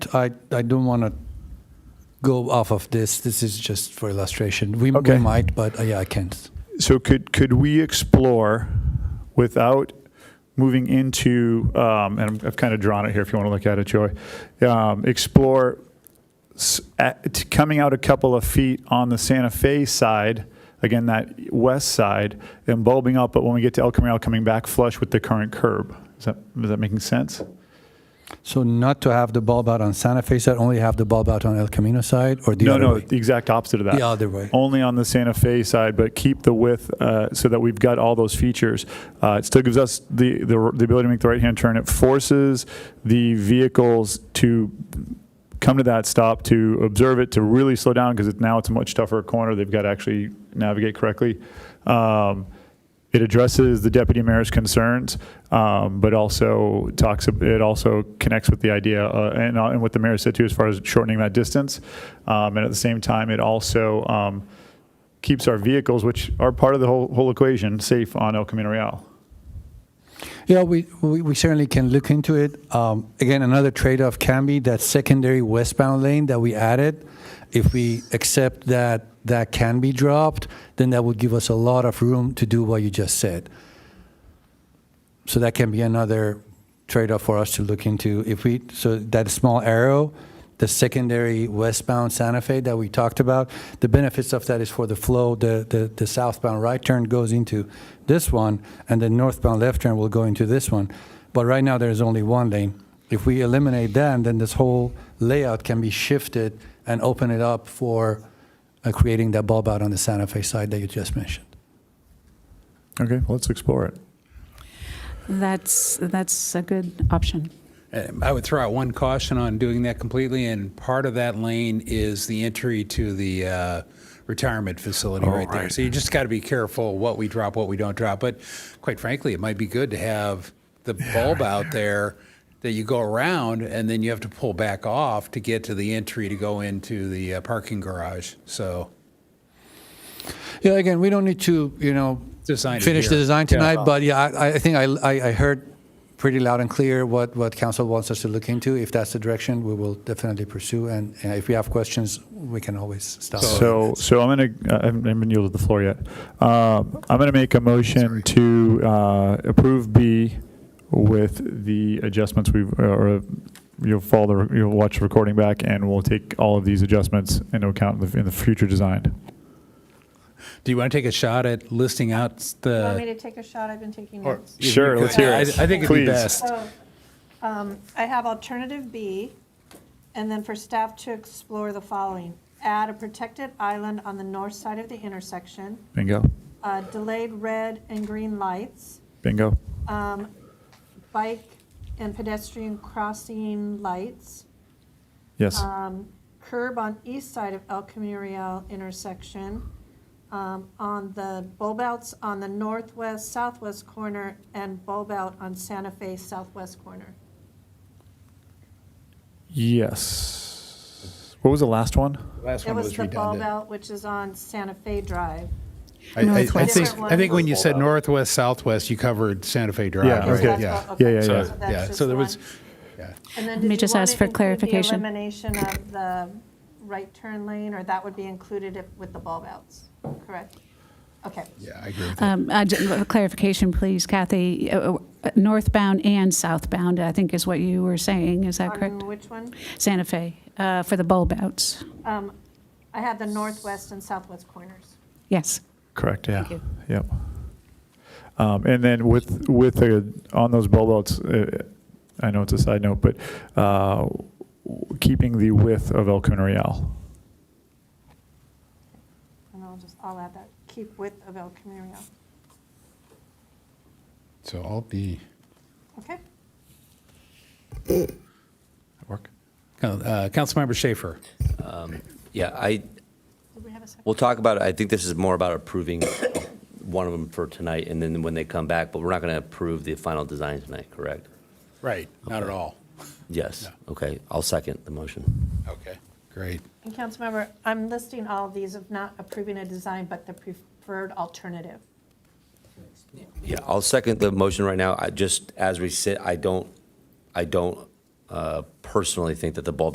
I, I don't want to go off of this. This is just for illustration. We, Okay. we might, but uh, yeah, I can't. So could, could we explore without moving into, um, and I'm- I've kind of drawn it here if you want to look at it, Joy, um, explore s- at- t- coming out a couple of feet on the Santa Fe side, again, that west side, and bulbing up, but when we get to El Camino, coming back flush with the current curb. Is that, is that making sense? So not to have the bulb out on Santa Fe side, only have the bulb out on El Camino side, or the No, other no, way? the exact opposite of that. The other way. Only on the Santa Fe side, but keep the width uh, so that we've got all those features. Uh, It still gives us the, the the ability to make the right-hand turn. It forces the vehicles to come to that stop, to observe it, to really slow down, because now it's a much tougher corner. They've got to actually navigate correctly. Um, It addresses the deputy mayor's concerns, um, but also talks, it also connects with the idea, uh, and, uh, and what the mayor said too, as far as shortening that distance. Um, and at the same time, it also, um, keeps our vehicles, which are part of the whole, whole equation, safe on El Camino Real. Yeah, we, we, we certainly can look into it. Um, again, another trade-off can be that secondary westbound lane that we added. If we accept that that can be dropped, then that would give us a lot of room to do what you just said. So that can be another trade-off for us to look into. If we, so that small arrow, the secondary westbound Santa Fe that we talked about, the benefits of that is for the flow, the, the, the southbound right turn goes into this one, and the northbound left turn will go into this one. But right now, there's only one lane. If we eliminate that, then this whole layout can be shifted and open it up for uh, creating that bulb out on the Santa Fe side that you just mentioned. Okay, well, let's explore it. That's, that's a good option. Um, I would throw out one caution on doing that completely, and part of that lane is the entry to the uh, retirement facility right there. So you just got to be careful what we drop, what we don't drop. But quite frankly, it might be good to have the bulb out there that you go around, and then you have to pull back off to get to the entry to go into the uh, parking garage. So Yeah, again, we don't need to, you know, Design it finish the here. design Yeah. tonight, but yeah, I, I think I, I I heard pretty loud and clear what, what council wants us to look into. If that's the direction, we will definitely pursue, and uh, if we have questions, we can always stop. So, so I'm going to, I haven't I haven't yielded the floor yet. Um, I'm going to make a motion to uh, approve B with the adjustments we've, uh, or you'll follow, the- you'll watch the recording back, and we'll take all of these adjustments into account in the- in the future design. do you want to take a shot at listing out You want me the? to take a shot? I've been taking notes. if you Sure, let's could? hear it. I, I think it'd be Please. best. So um, I have alternative B, and then for staff to explore the following. Add a protected island on the north side of the intersection, Bingo, uh, delayed red and green lights, bingo, um, bike and pedestrian crossing lights, yes. um, curb on east side of El Camino Real intersection, um, on the bulb outs on the northwest, southwest corner, and bulb out on Santa Fe southwest corner. Yes. What was the last one? Last It was the bulb out, which is on Santa Fe Drive. I- I- I Northwest. think, Different I think when you ones. said northwest, southwest, you covered Santa Fe Drive. Yeah, right? okay. Yeah. Yeah, yeah, So, yeah. that's yeah, just so there the was, one. yeah. And then Let did me you just wanna ask for include clarification. The elimination of the right turn lane, or that would be included if- with the bulb outs, correct? Okay. yeah, I agree with that. Um, I ju- Clarification, please, Kathy, Uh, uh, northbound and southbound, I think is what you were saying, is that correct? On which one? Santa Fe, uh, for the bulb outs, Um, I had the northwest and southwest corners. yes. Correct, yeah. you. Yep. Um, And then with, with, the- on those bulb outs, uh, I know it's a side note, but uh, w- keeping the width of El Camino Real. And I'll just, I'll add that, keep width of El Camino Real. So I'll be, Okay? that work? Coun- uh, Councilmember Schaefer. Yeah, I, Did we have a second? we'll talk about it. I think this is more about approving one of them for tonight and then when they come back, but we're not going to approve the final design tonight, correct? Right, not at all. Yes, okay, I'll second the motion. Okay, great. And Councilmember, I'm listing all of these of not approving a design, but the preferred alternative. Yeah, I'll second the motion right now. I just, as we sit, I don't, I don't uh, personally think that the bulb